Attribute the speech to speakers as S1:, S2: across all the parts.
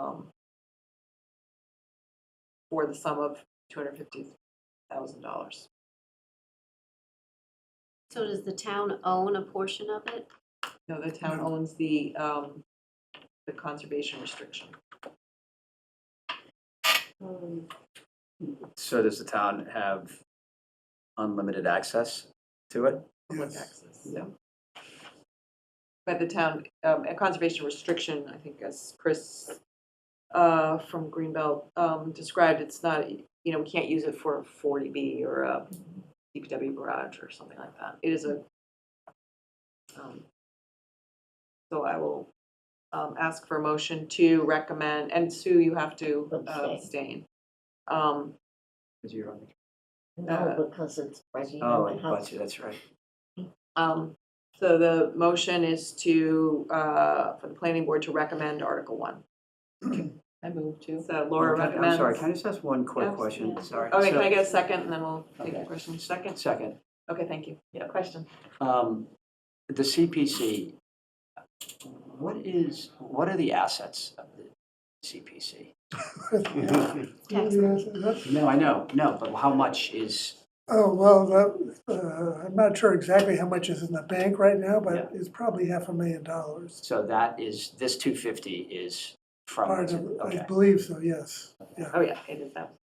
S1: um, for the sum of two hundred fifty thousand dollars.
S2: So does the town own a portion of it?
S1: No, the town owns the, um, the conservation restriction.
S3: So does the town have unlimited access to it?
S1: public access, so. But the town, um, a conservation restriction, I think as Chris, uh, from Greenbelt, um, described, it's not, you know, we can't use it for a forty B or a DPW garage or something like that. It is a, um, so I will, um, ask for a motion to recommend, and Sue, you have to uh, abstain. Um,
S3: Because you're on the.
S1: Uh,
S4: No, because it's Reggie
S3: Oh,
S4: Open
S3: and
S4: House.
S3: budget, that's right.
S1: Um, so the motion is to, uh, for the planning board to recommend Article One.
S5: I move to.
S1: So Laura
S3: Okay,
S1: recommends.
S3: I'm sorry, Oh, can I just ask one quick
S1: Yes,
S3: question?
S2: yeah.
S3: Sorry.
S1: Okay, can
S3: So-
S1: I get a second and then we'll take a
S3: Okay.
S1: question, second?
S3: Second,
S1: Okay, thank you. Yeah, question.
S3: um, the CPC, what is, what are the assets of the CPC?
S2: Tax
S6: Yes, that's-
S3: No, I know, no, but how much is,
S6: Oh, well, that, uh, I'm not sure exactly how much is in the bank right now,
S3: Yeah.
S6: but it's probably half a million dollars.
S3: so that is, this two fifty is from,
S6: Part of, I
S3: okay.
S6: believe so, yes.
S1: Oh, yeah, it is that.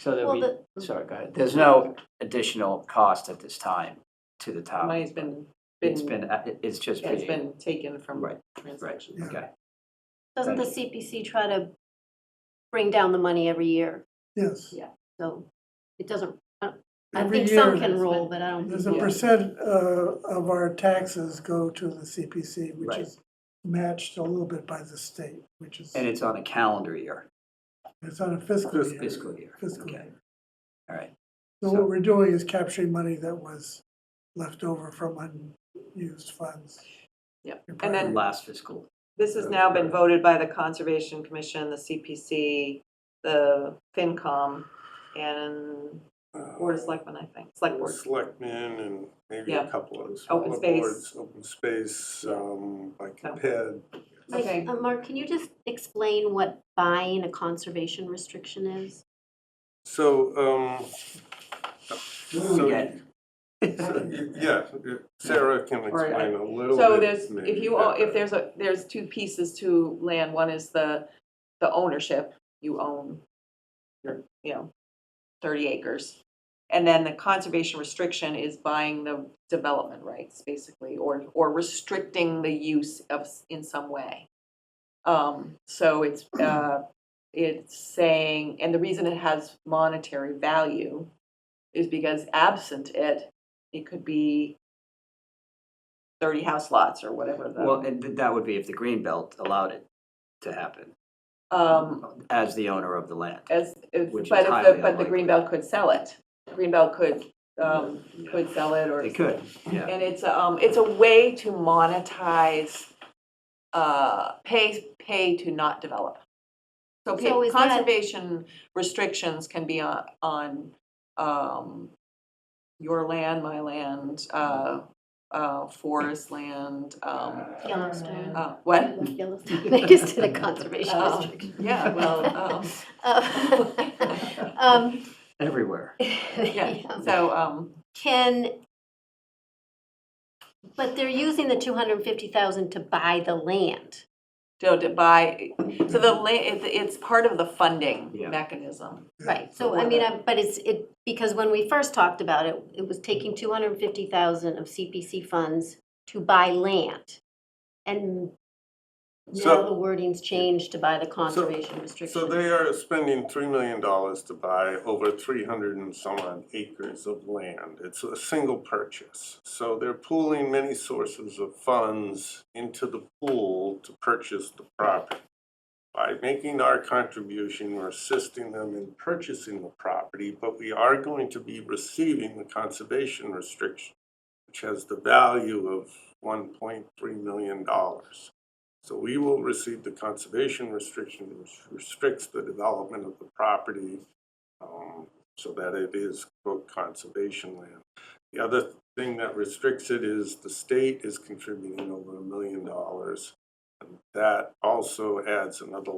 S3: So
S4: Well,
S3: that
S4: the-
S3: we, sorry, go ahead. There's no additional cost at this time to the
S1: The
S3: town.
S1: Money's been,
S3: It's
S1: been,
S3: been, uh, it- it's just
S1: it's
S3: being,
S1: been taken from
S3: Right,
S1: transactions.
S6: Yeah.
S3: okay.
S2: Doesn't the CPC try to bring down the money every year?
S6: Yes.
S2: Yeah. So it doesn't, I
S6: Every
S2: think some
S6: year,
S2: can roll, but I don't.
S6: There's a
S2: think-
S1: Yeah.
S6: percent uh, of our taxes go to the CPC, which
S3: Right.
S6: is matched a little bit by the state, which is,
S3: And it's on a calendar year,
S6: it's on a fiscal year.
S3: fiscal year.
S6: Fiscal
S3: Okay.
S6: year.
S3: All right,
S6: So what we're doing is capturing money that was left over from unused funds.
S1: Yep.
S6: in
S1: And then-
S6: prior
S3: last fiscal.
S1: This has now been voted by the Conservation Commission, the CPC, the FinCom, and Board of Selectmen, I think, Uh, Select Board.
S7: Selectmen and maybe a
S1: Yeah.
S7: couple of
S1: Open
S7: smaller
S1: space.
S7: boards, open space, um, like a ped.
S2: Like,
S1: Okay.
S2: uh, Mark, can you just explain what buying a conservation restriction is?
S7: So, um,
S3: What do we get?
S7: so, yeah, Sarah can
S1: Or-
S7: explain a little bit.
S1: So there's, if
S7: maybe
S1: you, own- if
S7: better.
S1: there's a, there's two pieces to land, one is the, the ownership, you own your, you know, thirty acres. And then the conservation restriction is buying the development rights, basically, or, or restricting the use of, s- in some way. Um, so it's, uh, it's saying, and the reason it has monetary value is because absent it, it could be thirty house lots or whatever
S3: Well,
S1: the,
S3: and th- that would be if the green belt allowed it to happen
S1: um,
S3: as the owner of the land.
S1: as, if-
S3: Which is
S1: but if the,
S3: highly
S1: but the
S3: unlikely.
S1: Greenbelt could sell it. Greenbelt could, um, could sell it or.
S3: They could, yeah.
S1: And it's, um, it's a way to monetize, uh, pay, pay to not develop. So
S2: So
S1: pa-
S2: is that-
S1: conservation restrictions can be on, on, um, your land, my land, uh, uh, forest land, um,
S2: Yellowstone.
S1: uh, what?
S2: Yellowstone, they just did a conservation
S1: Oh.
S2: restriction.
S1: Yeah, well, um,
S2: Uh, um,
S3: Everywhere.
S1: yeah, so, um,
S2: Can, but they're using the 250,000 to buy the land.
S1: to, to buy, so the, la- it's, it's part of the funding
S3: Yeah.
S1: mechanism.
S2: Right, so I
S1: for
S2: mean,
S1: the-
S2: I- but it's, it, because when we first talked about it, it was taking two hundred and fifty thousand of CPC funds to buy land. And now
S7: So-
S2: the wording's changed to buy the conservation restriction.
S7: So they are spending three million dollars to buy over three hundred and some odd acres of land. It's a single purchase. So they're pooling many sources of funds into the pool to purchase the property. By making our contribution, we're assisting them in purchasing the property, but we are going to be receiving the conservation restriction, which has the value of one point three million dollars. So we will receive the conservation restriction, which restricts the development of the property um, so that it is quote conservation land. The other thing that restricts it is the state is contributing over a million dollars. and That also adds another